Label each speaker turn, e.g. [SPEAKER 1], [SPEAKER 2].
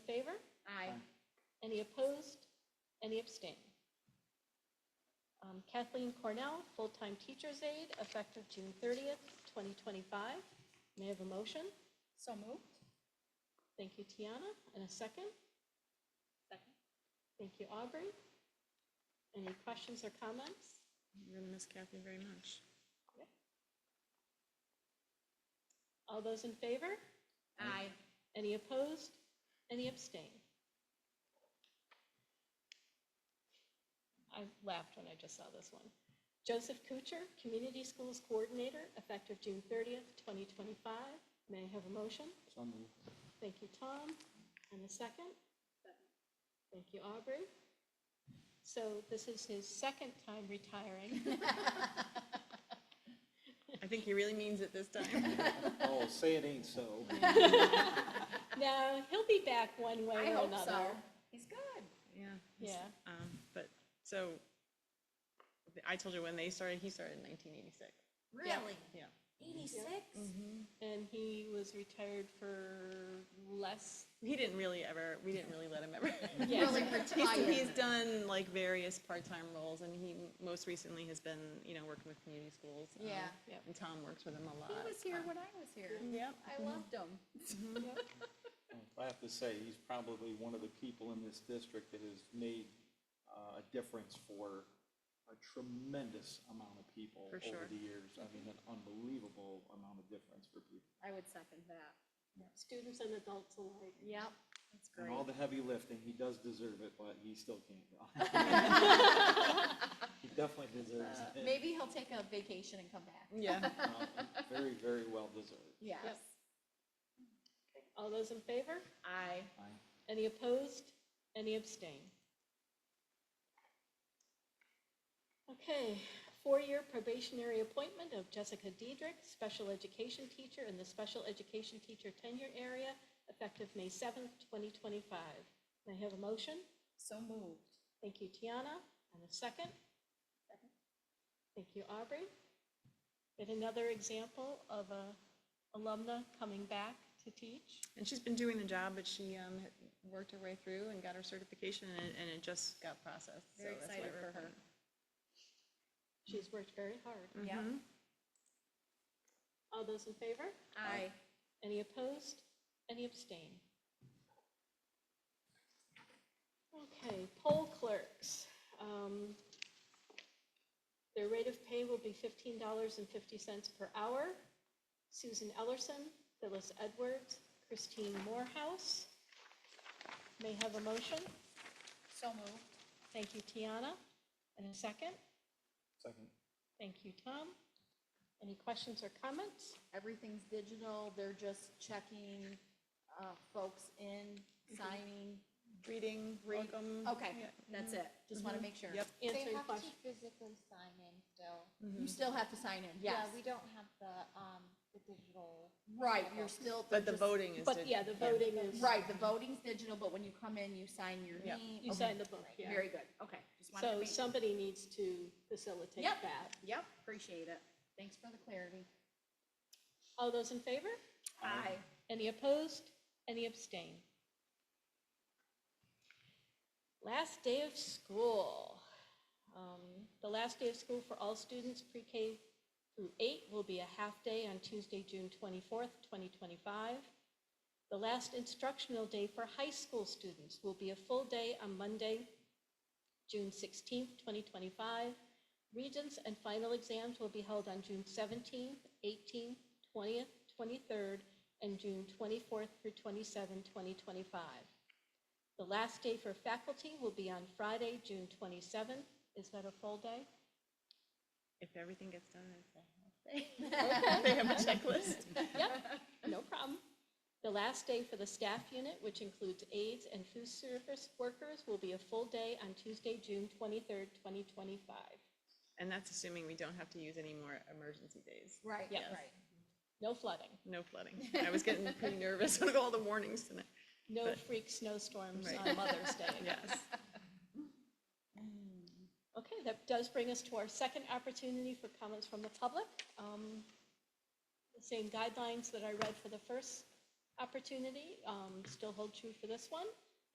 [SPEAKER 1] Any opposed? Any abstain? Um, Kathleen Cornell, full-time teacher's aide, effective June 30th, 2025. May I have a motion?
[SPEAKER 2] So moved.
[SPEAKER 1] Thank you, Tiana. And a second?
[SPEAKER 2] Second.
[SPEAKER 1] Thank you, Aubrey. Any questions or comments?
[SPEAKER 3] You're gonna miss Kathy very much.
[SPEAKER 1] All those in favor?
[SPEAKER 2] Aye.
[SPEAKER 1] Any opposed? Any abstain? I laughed when I just saw this one. Joseph Kuchar, Community Schools Coordinator, effective June 30th, 2025. May I have a motion?
[SPEAKER 4] So moved.
[SPEAKER 1] Thank you, Tom. And a second? Thank you, Aubrey. So this is his second time retiring.
[SPEAKER 3] I think he really means it this time.
[SPEAKER 4] Oh, say it ain't so.
[SPEAKER 1] Now, he'll be back one way
[SPEAKER 2] I
[SPEAKER 1] or
[SPEAKER 2] hope so.
[SPEAKER 1] another.
[SPEAKER 2] He's good.
[SPEAKER 3] Yeah.
[SPEAKER 1] Yeah.
[SPEAKER 3] Um, but, so, I told you when they started, he started in nineteen eighty-six.
[SPEAKER 2] Really?
[SPEAKER 3] Yeah.
[SPEAKER 2] Eighty-six?
[SPEAKER 1] And he was retired for less,
[SPEAKER 3] He didn't really ever, we didn't really let him ever.
[SPEAKER 1] Yes.
[SPEAKER 2] Really
[SPEAKER 3] He's, he's
[SPEAKER 2] retired.
[SPEAKER 3] done like various part-time roles and he most recently has been, you know, working with community schools. um,
[SPEAKER 2] Yeah.
[SPEAKER 1] Yep.
[SPEAKER 3] And Tom works with him a lot. Um,
[SPEAKER 2] He was here when I was here.
[SPEAKER 3] Yep.
[SPEAKER 2] I loved him.
[SPEAKER 4] I have to say, he's probably one of the people in this district that has made uh, a difference for a tremendous amount of people
[SPEAKER 3] For
[SPEAKER 4] over
[SPEAKER 3] sure.
[SPEAKER 4] the years. I mean, an unbelievable amount of difference for people.
[SPEAKER 2] I would second that.
[SPEAKER 1] students and adults alike.
[SPEAKER 2] Yep, that's
[SPEAKER 4] And all
[SPEAKER 2] great.
[SPEAKER 4] the heavy lifting, he does deserve it, but he still can't. He definitely deserves
[SPEAKER 2] Uh,
[SPEAKER 4] it.
[SPEAKER 2] Maybe he'll take a vacation and come back.
[SPEAKER 3] Yeah.
[SPEAKER 4] Uh, Very, very well deserved.
[SPEAKER 2] Yes.
[SPEAKER 1] All those in favor?
[SPEAKER 2] I.
[SPEAKER 4] I-
[SPEAKER 1] Any opposed? Any abstain? Okay, four-year probationary appointment of Jessica Diedrich, special education teacher in the special education teacher tenure area, effective May 7th, 2025. May I have a motion?
[SPEAKER 2] So moved.
[SPEAKER 1] Thank you, Tiana. And a second?
[SPEAKER 2] Second.
[SPEAKER 1] Thank you, Aubrey. Yet another example of a alumna coming back to teach.
[SPEAKER 3] And she's been doing the job, but she, um, had worked her way through and got her certification and, it- and it just got processed. so
[SPEAKER 2] Very
[SPEAKER 3] that's why
[SPEAKER 2] excited
[SPEAKER 3] we're
[SPEAKER 2] for her.
[SPEAKER 3] kind of-
[SPEAKER 1] She's worked very hard.
[SPEAKER 2] Yeah.
[SPEAKER 3] Mhm.
[SPEAKER 1] All those in favor?
[SPEAKER 2] I.
[SPEAKER 1] Any opposed? Any abstain? Okay, poll clerks. Um, Their rate of pay will be fifteen dollars and fifty cents per hour. Susan Ellerson, Phyllis Edwards, Christine Morehouse. May I have a motion.
[SPEAKER 2] So moved.
[SPEAKER 1] Thank you, Tiana. And a second.
[SPEAKER 4] Second.
[SPEAKER 1] Thank you, Tom. Any questions or comments?
[SPEAKER 2] Everything's digital. They're just checking, uh, folks in, signing.
[SPEAKER 3] Reading,
[SPEAKER 2] Read-
[SPEAKER 3] welcome.
[SPEAKER 2] Okay,
[SPEAKER 3] yeah.
[SPEAKER 2] that's it. Just want to make sure.
[SPEAKER 3] Yep.
[SPEAKER 5] They
[SPEAKER 1] Answering
[SPEAKER 5] have to
[SPEAKER 1] questions.
[SPEAKER 5] physically sign in still.
[SPEAKER 2] You still have to sign in,
[SPEAKER 5] Yeah,
[SPEAKER 2] yes.
[SPEAKER 5] we don't have the, um, the digital.
[SPEAKER 2] Right, you're still.
[SPEAKER 3] But the
[SPEAKER 2] just-
[SPEAKER 3] voting is.
[SPEAKER 1] But
[SPEAKER 3] did-
[SPEAKER 1] yeah, the voting is,
[SPEAKER 2] Right, the voting's digital, but when you come in, you sign your
[SPEAKER 3] Yeah.
[SPEAKER 2] name.
[SPEAKER 1] you
[SPEAKER 2] Okay,
[SPEAKER 1] sign the book, yeah.
[SPEAKER 2] Very good, okay. Just wanted to
[SPEAKER 1] So
[SPEAKER 2] make-
[SPEAKER 1] somebody needs to facilitate
[SPEAKER 2] Yep.
[SPEAKER 1] that.
[SPEAKER 2] Yep, appreciate it. Thanks for the clarity.
[SPEAKER 1] All those in favor?
[SPEAKER 2] Aye.
[SPEAKER 1] Any opposed? Any abstain? Last day of school. Um, The last day of school for all students pre-K through eight will be a half day on Tuesday, June 24th, 2025. The last instructional day for high school students will be a full day on Monday, June 16th, 2025. Regents and final exams will be held on June 17th, 18th, 20th, 23rd, and June 24th through 27, 2025. The last day for faculty will be on Friday, June 27th. Is that a full day?
[SPEAKER 3] If everything gets done, it's a- they have a checklist.
[SPEAKER 1] No problem. The last day for the staff unit, which includes aides and food service workers, will be a full day on Tuesday, June 23rd, 2025.
[SPEAKER 3] And that's assuming we don't have to use any more emergency days.
[SPEAKER 2] Right,
[SPEAKER 1] Yes.
[SPEAKER 2] right.
[SPEAKER 1] No flooding,
[SPEAKER 3] No flooding. I was getting pretty nervous with all the warnings tonight.
[SPEAKER 1] no
[SPEAKER 3] But-
[SPEAKER 1] freak snowstorms
[SPEAKER 3] Right.
[SPEAKER 1] on Mother's Day.
[SPEAKER 3] Yes.
[SPEAKER 1] Okay, that does bring us to our second opportunity for comments from the public. Um, The same guidelines that I read for the first opportunity um, still hold true for this one.